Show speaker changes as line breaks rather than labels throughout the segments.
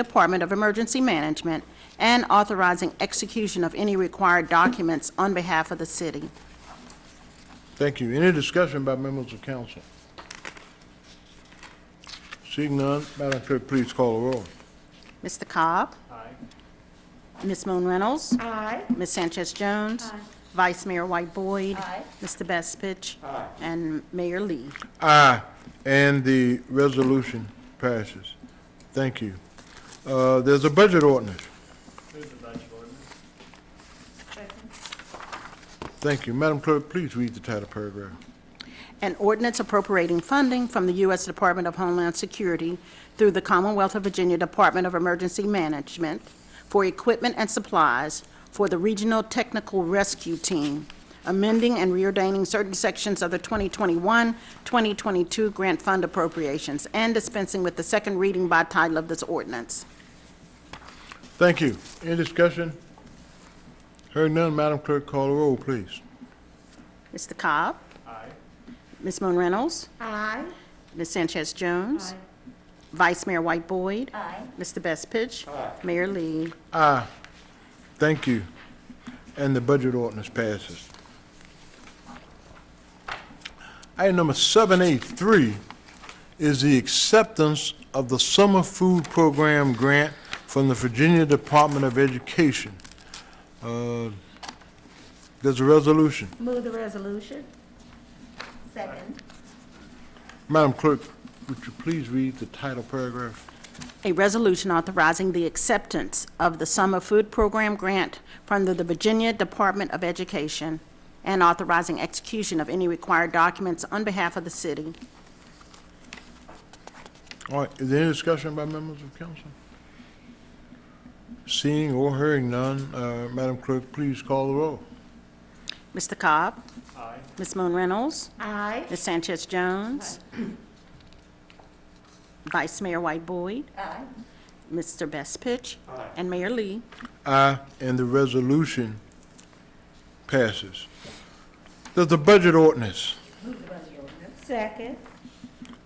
Department of Emergency Management and authorizing execution of any required documents on behalf of the city.
Thank you. Any discussion by members of council? Seeing none, Madam Clerk, please call the roll.
Mr. Cobb? Aye. Ms. Moon Reynolds?
Aye.
Ms. Sanchez Jones? Vice Mayor White Boyd?
Aye.
Mr. Bestfitch? And Mayor Lee.
Aye, and the resolution passes. Thank you. Uh, There's a budget ordinance. Thank you. Madam Clerk, please read the title paragraph.
An ordinance appropriating funding from the U.S. Department of Homeland Security through the Commonwealth of Virginia Department of Emergency Management for equipment and supplies for the Regional Technical Rescue Team, amending and reordaining certain sections of the 2021-2022 grant fund appropriations, and dispensing with the second reading by title of this ordinance.
Thank you. Any discussion? Heard none, Madam Clerk, call the roll, please.
Mr. Cobb? Aye. Ms. Moon Reynolds?
Aye.
Ms. Sanchez Jones? Vice Mayor White Boyd?
Aye.
Mr. Bestfitch? Mayor Lee?
Aye. Thank you. And the budget ordinance passes. Item number 783 is the acceptance of the Summer Food Program Grant from the Virginia Department of Education. Uh, There's a resolution.
Move the resolution. Second.
Madam Clerk, would you please read the title paragraph?
A resolution authorizing the acceptance of the Summer Food Program grant from the Virginia Department of Education and authorizing execution of any required documents on behalf of the city.
All right, is there any discussion by members of council? Seeing or hearing none, uh, Madam Clerk, please call the roll.
Mr. Cobb? Aye. Ms. Moon Reynolds?
Aye.
Ms. Sanchez Jones? Vice Mayor White Boyd?
Aye.
Mr. Bestfitch? And Mayor Lee?
Aye, and the resolution passes. There's a budget ordinance.
Second.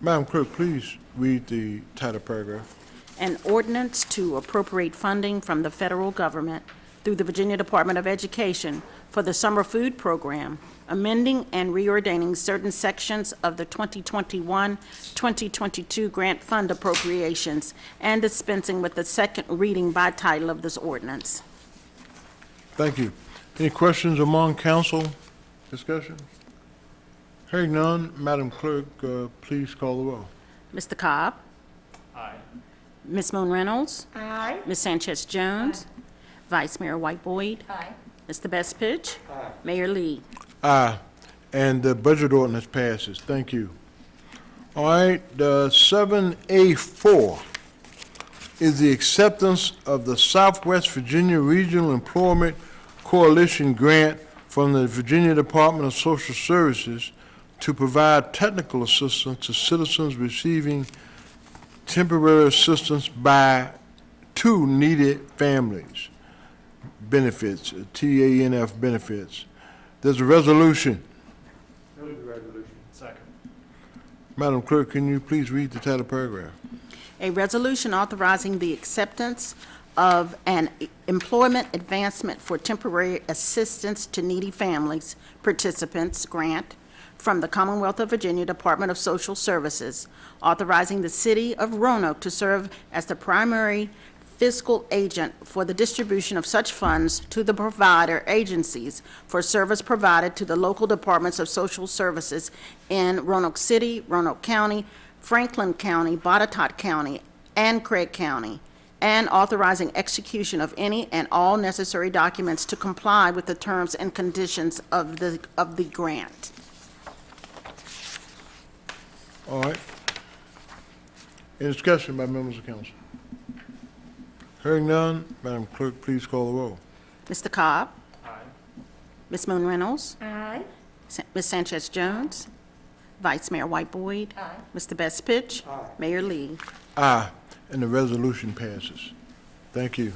Madam Clerk, please read the title paragraph.
An ordinance to appropriate funding from the federal government through the Virginia Department of Education for the summer food program, amending and reordaining certain sections of the 2021-2022 grant fund appropriations, and dispensing with the second reading by title of this ordinance.
Thank you. Any questions among council discussion? Hearing none, Madam Clerk, uh, please call the roll.
Mr. Cobb? Aye. Ms. Moon Reynolds?
Aye.
Ms. Sanchez Jones? Vice Mayor White Boyd?
Aye.
Mr. Bestfitch? Mayor Lee?
Aye, and the budget ordinance passes. Thank you. All right, uh, 7A4 is the acceptance of the Southwest Virginia Regional Employment Coalition Grant from the Virginia Department of Social Services to provide technical assistance to citizens receiving temporary assistance by two needed families benefits, TANF benefits. There's a resolution.
Move the resolution. Second.
Madam Clerk, can you please read the title paragraph?
A resolution authorizing the acceptance of an employment advancement for temporary assistance to needy families participants grant from the Commonwealth of Virginia Department of Social Services, authorizing the city of Roanoke to serve as the primary fiscal agent for the distribution of such funds to the provider agencies for service provided to the local departments of social services in Roanoke City, Roanoke County, Franklin County, Botetourt County, and Craig County, and authorizing execution of any and all necessary documents to comply with the terms and conditions of the, of the grant.
All right. Any discussion by members of council? Hearing none, Madam Clerk, please call the roll.
Mr. Cobb?
Aye.
Ms. Moon Reynolds?
Aye.
Sa- Ms. Sanchez Jones? Vice Mayor White Boyd?
Aye.
Mr. Bestfitch? Mayor Lee?
Aye, and the resolution passes. Thank you.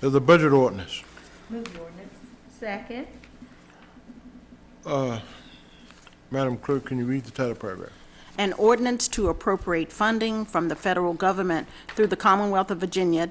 There's a budget ordinance.
Move the ordinance. Second.
Uh, Madam Clerk, can you read the title paragraph?
An ordinance to appropriate funding from the federal government through the Commonwealth of Virginia